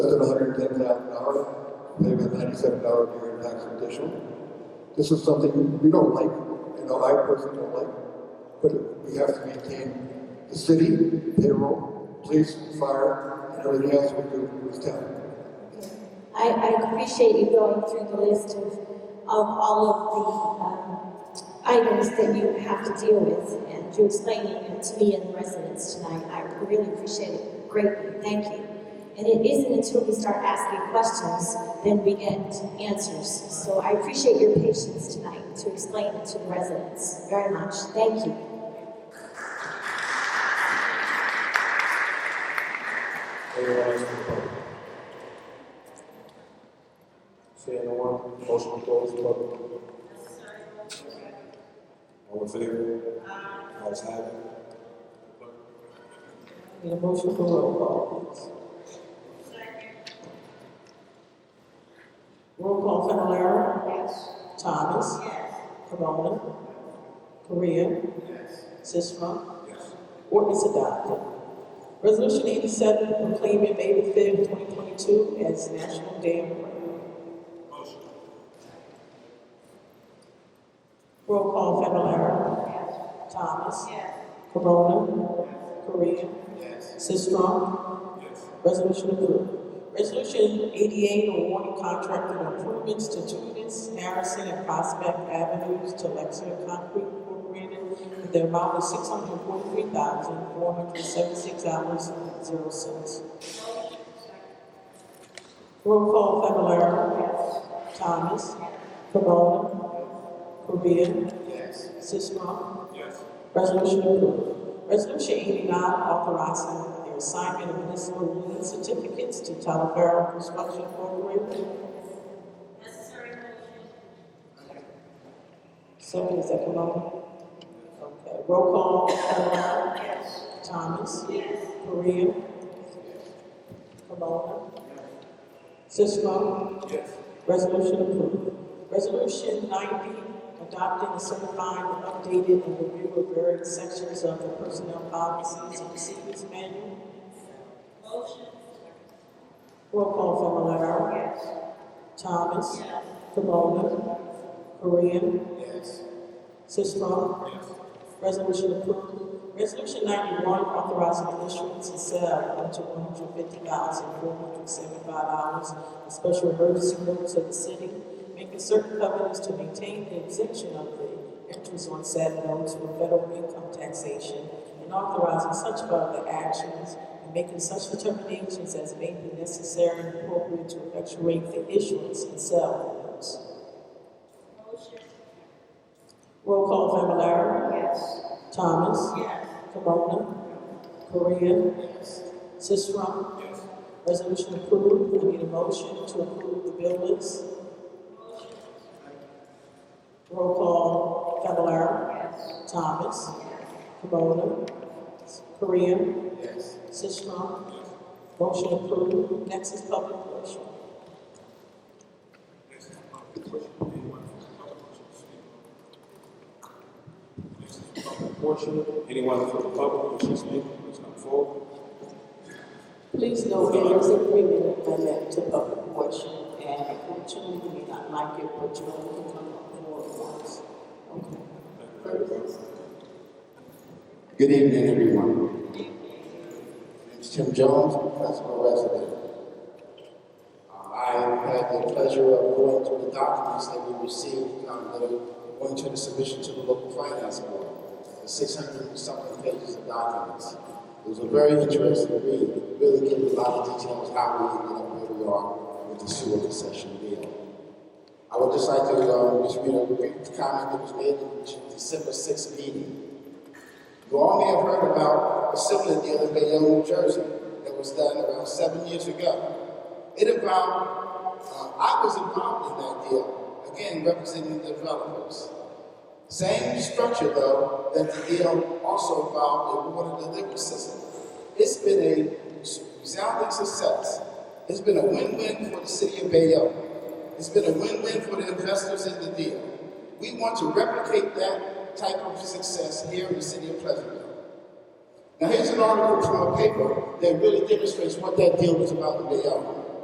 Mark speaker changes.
Speaker 1: half an hour, pay a ninety-seven dollar beer and tax additional. This is something we don't like, you know, I personally don't like, but we have to maintain the city, payroll, police, fire, and everything else we do in this town.
Speaker 2: I, I appreciate you going through the list of, of all of the, um, items that you have to deal with, and you explaining it to me and the residents tonight, I really appreciate it greatly, thank you. And it isn't until we start asking questions, then we get answers, so I appreciate your patience tonight to explain it to the residents very much, thank you.
Speaker 3: Anyone else from the public? Seeing no one, motion to close the public. All in favor? Ayes have it.
Speaker 4: Need a motion for roll call, please. Roll call Fennelara. Yes. Thomas. Yes. Camona. Korea. Yes. Sisram. Yes. Ordinance adopted. Resolution eighty-seven proclaiming May the fifth, twenty twenty-two as National Day of Prayer. Roll call Fennelara. Yes. Thomas. Yes. Camona. Korea. Yes. Sisram. Yes. Resolution approved. Resolution eighty-eight awarding contract and improvements to Judas, Harrison, and Prospect Avenues to Lexington Concrete Incorporated in the amount of six hundred forty-three thousand, four hundred seventy-six dollars and zero cents. Roll call Fablelaro. Yes. Thomas. Camona. Korea. Yes. Sisram. Resolution approved. Resolution eighty-nine, authorizing the assignment of municipal union certificates to Talavera Construction Corporation. So is that Camona? Okay, roll call, Fablelaro. Yes. Thomas. Yes. Korea. Camona. Sisram.
Speaker 3: Yes.
Speaker 4: Resolution approved. Resolution ninety, adopting and certifying the updated and review of various sections of the personnel policies and procedures manual. Motion. Roll call Familar. Yes. Thomas. Yes. Camona. Korea.
Speaker 3: Yes.
Speaker 4: Sisram. Yes. Resolution approved. Resolution ninety-one, authorizing the issuance and sale up to one hundred fifty thousand four hundred seventy-five dollars in special emergency notes of the city, making certain covenants to maintain the exemption of the interest on said notes from federal income taxation, and authorizing such further actions and making such determinations as may be necessary and appropriate to effectuate the issuance and sale of notes. Roll call Familar. Yes. Thomas. Yes. Camona. Korea. Yes. Sisram. Yes. Resolution approved. We need a motion to approve the bill list. Roll call Familar. Yes. Thomas. Camona. Korea. Yes. Sisram. Motion approved. Next is public portion.
Speaker 3: This is the public portion. Anyone from the public wishing to speak, please come forward.
Speaker 4: Please note that there's agreement that led to public portion, and unfortunately, we may not like it, but you only can come up and work once. Okay.
Speaker 5: Good evening, everyone. It's Tim Jones, Principal Resident. Uh, I had the pleasure of going through the documents that we received,
Speaker 1: uh,
Speaker 5: um, that are going to the submission to the local finance board, the six hundred and something pages of documents. It was a very interesting read, It really gave a lot of details how we ended up where we are with the sewer concession deal. I would just like to, uh, just read a brief comment that was made in the December sixth meeting. You all may have heard about a similar deal in Bayonne, New Jersey, that was done around seven years ago. It involved, uh, I was involved in that deal, again, representing the developers. Same structure though, that the deal also involved a water delivery system. It's been a resounding success. It's been a win-win for the city of Bayonne. It's been a win-win for the investors in the deal. We want to replicate that type of success here in the city of Pleasantville. Now, here's an article from a paper that really demonstrates what that deal was about in Bayonne.